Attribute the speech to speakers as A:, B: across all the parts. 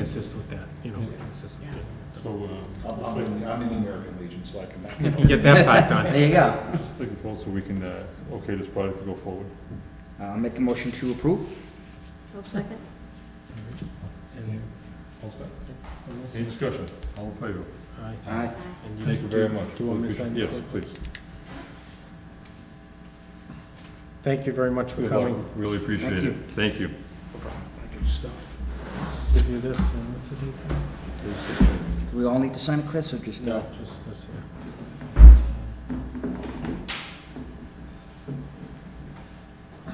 A: assist with that, you know, we can assist with that.
B: So, uh,
C: I'm, I'm in, I'm in the American Legion, so I can.
A: If you get that part done.
D: There you go.
B: I'm just looking forward so we can, uh, okay this project to go forward.
D: I'll make a motion to approve.
E: I'll second.
A: And,
B: All set? Any discussion? All in favor?
A: all right.
D: Aye.
A: And
B: Thank you
A: do-
B: very much.
A: Do you want me to sign?
B: Yes, please.
A: Thank you very much for
B: Good luck.
A: coming.
B: Really appreciate it. Thank you.
C: Good stuff.
A: uh, Give you this, and what's the date today?
D: Do we all need to sign it, Chris, or just? uh,
A: Just this, yeah.
B: All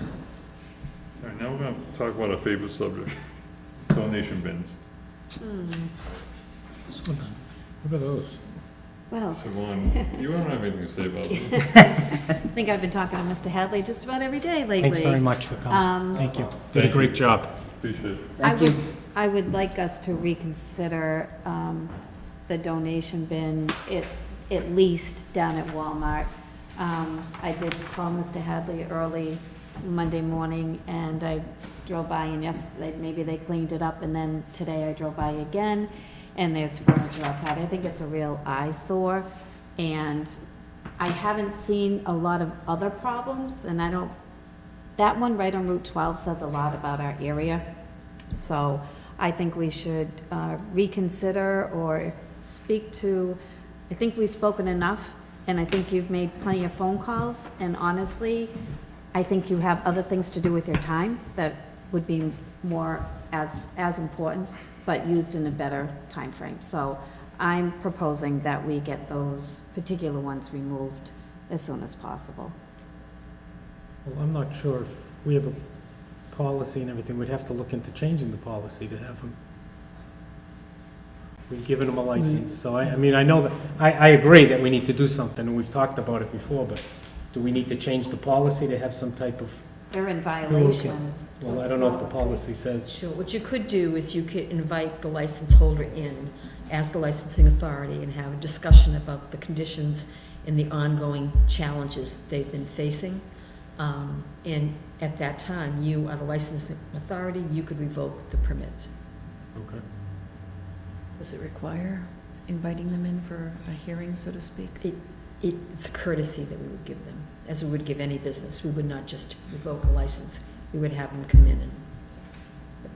B: right, now we're gonna talk about our favorite subject, donation bins.
E: Hmm,
A: This one, What are those?
E: Well,
B: Yvonne, you don't have anything to say about it?
E: I think I've been talking to Mr. Hadley just about every day lately.
F: Thanks very much for coming.
E: Um,
F: Thank you.
A: Did a
B: Thank
A: great
B: you.
A: job.
B: Appreciate it.
E: I
D: Thank you.
E: would, I would like us to reconsider um, the donation bin, at, at least down at Walmart. Um, I did call Mr. Hadley early Monday morning, and I drove by, and yes, they- maybe they cleaned it up, and then today I drove by again, and there's furniture outside. I think it's a real eyesore, and I haven't seen a lot of other problems, and I don't that one right on Route 12 says a lot about our area, so I think we should uh, reconsider or speak to, I think we've spoken enough, and I think you've made plenty of phone calls, and honestly, I think you have other things to do with your time that would be more as, as important, but used in a better time frame. So I'm proposing that we get those particular ones removed as soon as possible.
F: Well, I'm not sure if we have a policy and everything, we'd have to look into changing the policy to have them. We've given them a license, so I, I mean, I know that, I, I agree that we need to do something, and we've talked about it before, but do we need to change the policy to have some type of,
E: They're in violation.
F: well, I don't know if the policy says,
G: Sure, what you could do is you could invite the license holder in as the licensing authority and have a discussion about the conditions and the ongoing challenges they've been facing. Um, And at that time, you are the licensing authority, you could revoke the permits.
A: Okay.
H: Does it require inviting them in for a hearing, so to speak?
G: It's a courtesy that we would give them, as we would give any business. We would not just revoke a license, we would have them come in and,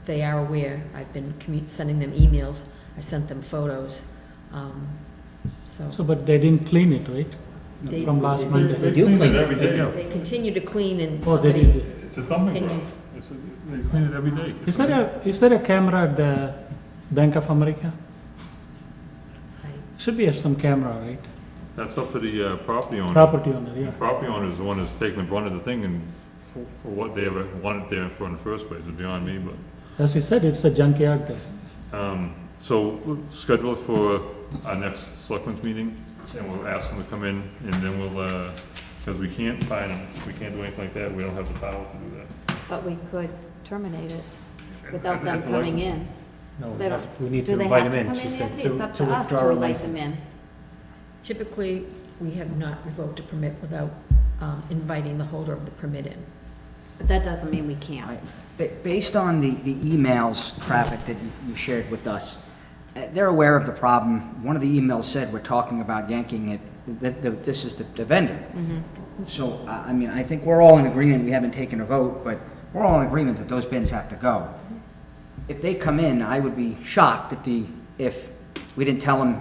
G: they are aware. I've been commu- sending them emails, I sent them photos, um, so.
F: so, but they didn't clean it,
G: They-
F: right? From last
G: they-
F: month?
G: they
D: do
B: Clean
D: clean
B: it
D: it.
B: every day.
G: They continue to clean and
F: Oh, they
G: somebody
F: did.
B: It's a thumbing drive.
G: continues.
B: It's a- They clean it every day.
F: Is there a, is there a camera at the Bank of America?
G: I-
F: Should be have some camera, right?
B: That's up to the uh, property owner.
F: Property owner, yeah.
B: Property owner is the one that's taking the brunt of the thing and for for what they ever wanted there for in the first place, is beyond me, but.
F: As you said, it's a junkyard there.
B: Um, So we'll schedule it for our next selectmen's meeting, and we'll ask them to come in, and then we'll, because we can't find them, we can't do anything like that, we don't have the power to do that.
E: But we could terminate it
B: At-
E: without
B: at
E: them
B: the
E: coming
B: license-
E: in.
F: No, we
E: They don't-
F: have- we need to
E: Do they
F: invite
E: have
F: him
E: to
F: in,
E: come
F: she
E: in,
F: said,
E: Nancy?
F: to
E: It's up to us
F: withdraw
E: to
F: our
E: invite them
F: license.
E: in.
G: Typically, we have not revoked a permit without um, inviting the holder of the permit in.
E: But that doesn't mean we
D: I-
E: can't.
D: ba- Based on the, the emails, traffic that you- you shared with us, uh, they're aware of the problem. One of the emails said we're talking about yanking it, that, that this is the the vendor. So, uh, I, I mean, I think we're all in agreement, we haven't taken a vote, but we're all in agreement that those bins have to go. If they come in, I would be shocked if the, if we didn't tell them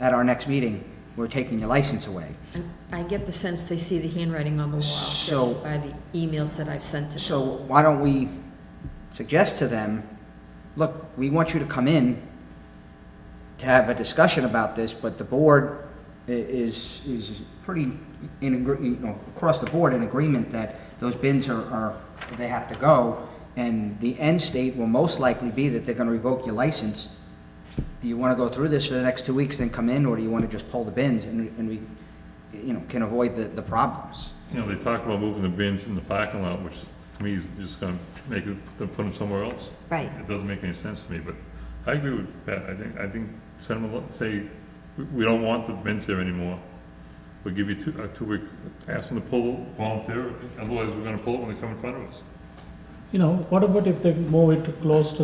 D: at our next meeting, we're taking your license away.
G: And I get the sense they see the handwriting on the wall
D: So-
G: judging by the emails that I've sent to them.
D: So why don't we suggest to them, look, we want you to come in to have a discussion about this, but the board i- is, is pretty in, agree- you know, across the board in agreement that those bins are, are, they have to go, and the end state will most likely be that they're gonna revoke your license. Do you wanna go through this for the next two weeks and come in, or do you wanna just pull the bins and, and we, you know, can avoid the, the problems?
B: You know, they talked about moving the bins in the parking lot, which to me is just gonna make it, them put them somewhere else.
E: Right.
B: It doesn't make any sense to me, but I agree with Pat, I think, I think, send them, a lo- say, "We- we don't want the bins there anymore. We'll give you two, a two-week, ask them to pull, volunteer, otherwise we're gonna pull it when they come in front of us.
F: You know, what about if they move it close to